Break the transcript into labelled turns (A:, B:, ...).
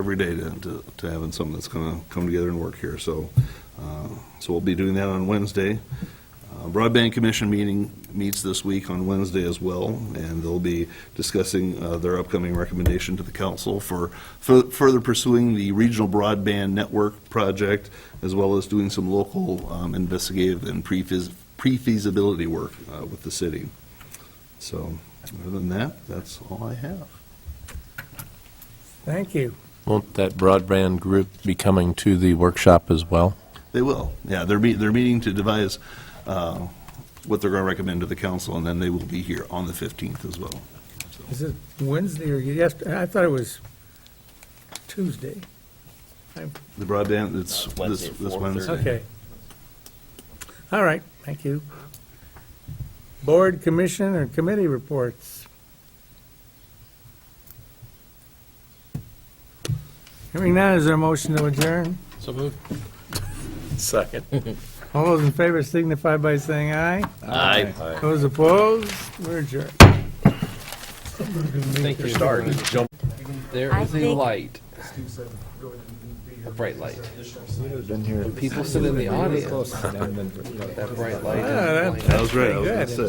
A: every day to, to, to having something that's gonna come together and work here, so, uh, so we'll be doing that on Wednesday. Uh, Broadband Commission meeting meets this week on Wednesday as well, and they'll be discussing uh, their upcoming recommendation to the council for fur- further pursuing the regional broadband network project, as well as doing some local um, investigative and pre-feas- pre-feasibility work uh, with the city. So, other than that, that's all I have.
B: Thank you.
C: Won't that broadband group be coming to the workshop as well?
A: They will, yeah, they're, meet- they're meeting to devise uh, what they're going to recommend to the council, and then they will be here on the 15th as well. So,
B: Is it Wednesday or yes, I thought it was Tuesday.
A: The broadband, it's this this Wednesday.
B: Okay. All right, thank you. Board, commission, or committee reports? Hearing none, is there a motion to adjourn?
C: So moved. Second.
B: All those in favor signify by saying aye.
C: Aye.
B: Those opposed, we're adjourned.
D: think you're starting to jump. There
E: I
D: is a
E: think-
D: light. A bright light. When people sit in the audience, that bright light.
B: Ah, that-
D: is
B: Ah,
D: blinding.
A: That was right, I was going
B: Good.
A: to say.